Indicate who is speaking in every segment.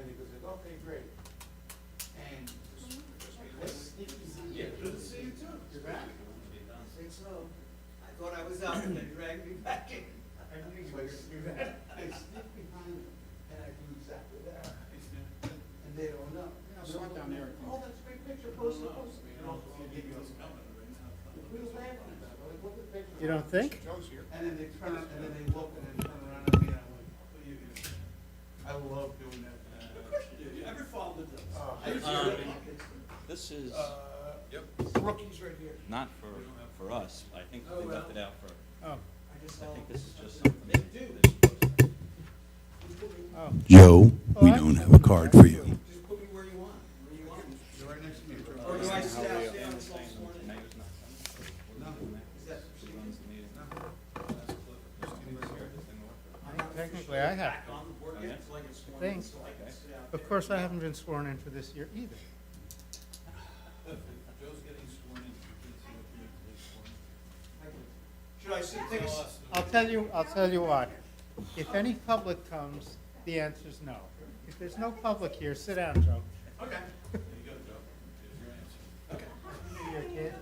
Speaker 1: okay, great. And let's think easy.
Speaker 2: Yeah, good to see you too.
Speaker 1: You're back?
Speaker 3: Think so. I thought I was out and they dragged me back in.
Speaker 1: I knew you were gonna do that. I sneak behind them and I do exactly that. And they don't know.
Speaker 4: Yeah, so I'm down there.
Speaker 1: Oh, that's a great picture, post it, post it. We were laughing about it, like, what the picture?
Speaker 5: You don't think?
Speaker 4: Joe's here.
Speaker 1: And then they turn, and then they look and then turn around at me and I'm like, what are you gonna do? I love doing that.
Speaker 3: Of course you do, you ever followed those?
Speaker 1: Oh,
Speaker 3: I used to
Speaker 6: um,
Speaker 3: do that.
Speaker 6: This is
Speaker 3: Uh,
Speaker 4: Yep. Rookies right here.
Speaker 6: not for, for us, I think
Speaker 3: Oh,
Speaker 6: they left
Speaker 3: well.
Speaker 6: it out for,
Speaker 3: I
Speaker 5: Oh,
Speaker 3: just
Speaker 6: I think
Speaker 3: followed.
Speaker 6: this is just
Speaker 3: They
Speaker 6: something.
Speaker 3: do.
Speaker 6: that they're supposed to-
Speaker 5: oh.
Speaker 7: Joe, we
Speaker 5: Well, I-
Speaker 7: don't have a card for you.
Speaker 3: Just put me where you want, where you want.
Speaker 1: You're right next to me. Trump.
Speaker 3: Or do I sit out there
Speaker 6: Yeah,
Speaker 3: and
Speaker 6: I'm
Speaker 3: smoke
Speaker 6: saying
Speaker 3: one?
Speaker 6: the mayor's not coming, so
Speaker 1: No.
Speaker 6: we're doing that.
Speaker 3: Is that
Speaker 6: She runs the meeting.
Speaker 3: I'm not
Speaker 5: Technically, I have.
Speaker 3: back on the board yet, so I can sworn in,
Speaker 5: Think.
Speaker 3: so I can sit out
Speaker 5: Of
Speaker 3: there.
Speaker 5: course, I haven't been sworn in for this year either.
Speaker 2: Joe's getting sworn in.
Speaker 3: I can- Should I sit, take a, s-
Speaker 5: I'll tell you, I'll tell you what. If any public comes, the answer's no. If there's no public here, sit down, Joe.
Speaker 3: okay.
Speaker 2: There you go, Joe. There's your answer.
Speaker 5: You're a kid.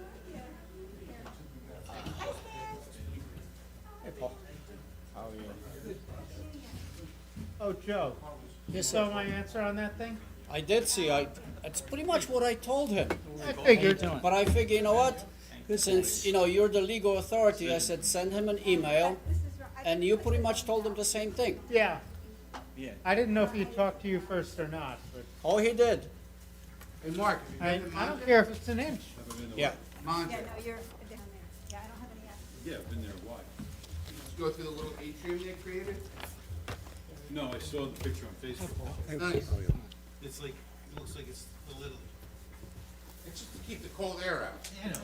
Speaker 5: Hey, Paul. How are you? Oh, Joe, you saw my answer on that thing?
Speaker 8: I did see, I, that's pretty much what I told him.
Speaker 5: I figured.
Speaker 8: But I figure, you know what? Since, you know, you're the legal authority, I said, send him an email, and you pretty much told him the same thing.
Speaker 5: Yeah,
Speaker 6: Yeah,
Speaker 5: I didn't know if he talked to you first or not, but
Speaker 8: Oh, he did,
Speaker 4: Hey, Mark,
Speaker 5: I, I don't care if it's an inch.
Speaker 8: yeah.
Speaker 4: Monte,
Speaker 9: Yeah, no, you're down there. Yeah, I don't have any access.
Speaker 2: Yeah, I've been there, why?
Speaker 4: let's go through the little atrium they created.
Speaker 2: No, I saw the picture on Facebook.
Speaker 4: Nice.
Speaker 2: It's like, it looks like it's the little.
Speaker 4: It's just to keep the cold air out.
Speaker 2: I know.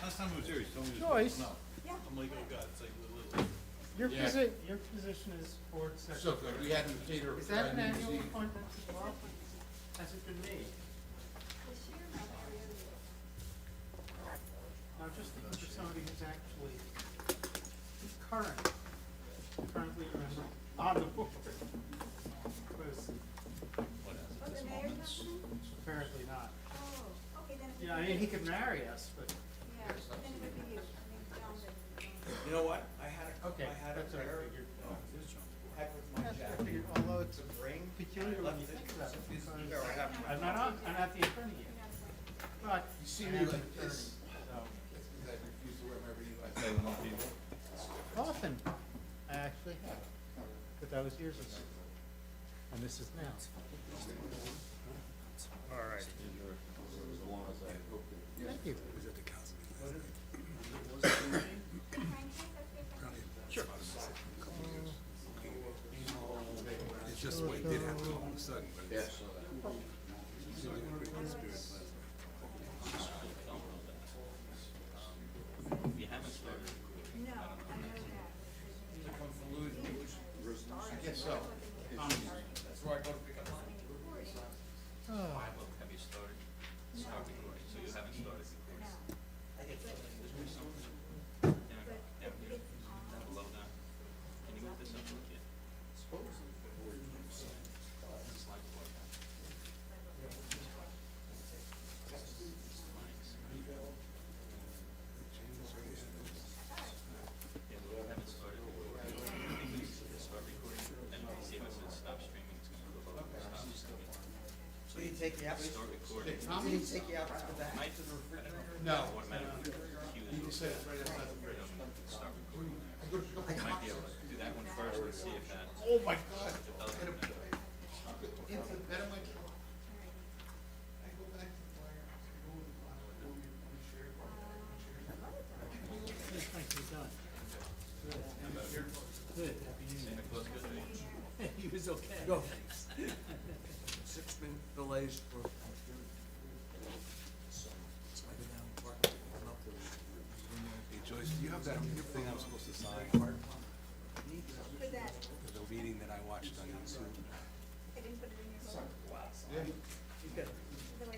Speaker 2: Last time I was here, he told me. to-
Speaker 5: Joyce.
Speaker 2: No.
Speaker 9: Yeah.
Speaker 2: I'm like, oh God, it's like the little.
Speaker 5: Your
Speaker 4: Yeah.
Speaker 5: posi, your position is board
Speaker 4: So
Speaker 5: secretary.
Speaker 4: good, we had him cater.
Speaker 5: Is that an
Speaker 4: had him
Speaker 5: annual
Speaker 4: see-
Speaker 5: appointment as well? Has it been made?
Speaker 9: This year, no, every other year.
Speaker 5: Now, just think for somebody who's actually current, currently on the board. Because
Speaker 9: Oh, the mayor's not coming?
Speaker 5: apparently not.
Speaker 9: Oh, okay, then it
Speaker 5: Yeah, I
Speaker 9: would
Speaker 5: mean, he
Speaker 9: be,
Speaker 5: could marry us, but,
Speaker 9: yeah, then it would be you. I mean, John's a-
Speaker 3: You know what? I had a,
Speaker 5: okay,
Speaker 3: I had a
Speaker 5: that's what I
Speaker 3: pair,
Speaker 5: figured.
Speaker 3: heck with my
Speaker 5: That's what I
Speaker 3: jacket.
Speaker 5: figured, although it's
Speaker 3: It's a ring.
Speaker 5: peculiar when you think about it, because I'm not on, I'm not the attorney yet, but.
Speaker 4: You see
Speaker 5: I
Speaker 4: me
Speaker 5: am an
Speaker 4: like this?
Speaker 5: attorney,
Speaker 4: That's because I refuse to wear my reading
Speaker 2: I
Speaker 4: glasses.
Speaker 2: say, well, people.
Speaker 5: so. Often, I actually have, but that was years ago. And this is now. Thank you.
Speaker 10: It's just the way it did happen all of a sudden, but it's.
Speaker 6: you haven't started.
Speaker 9: No, I know that.
Speaker 4: I guess so. That's where I go to pick up.
Speaker 5: Oh.
Speaker 6: Have you started? Start recording, so you haven't started recording. Is there something down, down here, down below that? Can you move this up a little bit? Slide it like that. Yeah, we haven't started recording. I think we need to start recording, and see if it says stop streaming, it's gonna go up, stop streaming.
Speaker 3: Will you take me out?
Speaker 6: Start recording.
Speaker 3: Will you take me out for that?
Speaker 6: Might just automatically
Speaker 4: No.
Speaker 6: cue
Speaker 4: You
Speaker 6: the-
Speaker 4: just said it's right outside the bridge.
Speaker 6: start recording there.
Speaker 4: I go to pick up my
Speaker 6: Might be able to do that one first and see if that.
Speaker 4: Oh my God. Hit him. Into the bed of my truck. I go back to the wire. I go with the wire. I go with the chair.
Speaker 8: He was okay.
Speaker 3: Six minute delays for.
Speaker 10: Hey Joyce, do you have that thing I'm supposed to sign
Speaker 9: For that,
Speaker 10: for the meeting that I watched on YouTube?
Speaker 9: I didn't put it in your book.
Speaker 4: Yeah.